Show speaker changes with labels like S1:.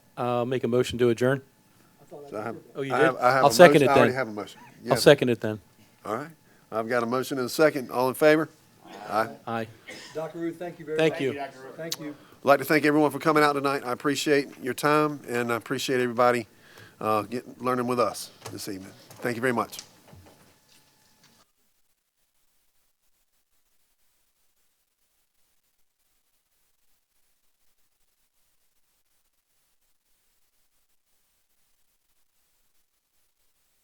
S1: uh, make a motion to adjourn?
S2: So I have-
S1: Oh, you
S2: I
S1: did?
S2: have- I have
S1: I'll
S2: a
S1: second
S2: motion-
S1: it
S2: I already
S1: then.
S2: have a motion.
S1: I'll
S2: Yes.
S1: second it then.
S2: All right. I've got a motion and a second. All in favor? Aye.
S1: Aye.
S3: Dr. Ruth, thank you very much.
S1: Thank you.
S3: Thank you.
S2: I'd like to thank everyone for coming out tonight. I appreciate your time, and I appreciate everybody uh, getting, learning with us this evening. Thank you very much.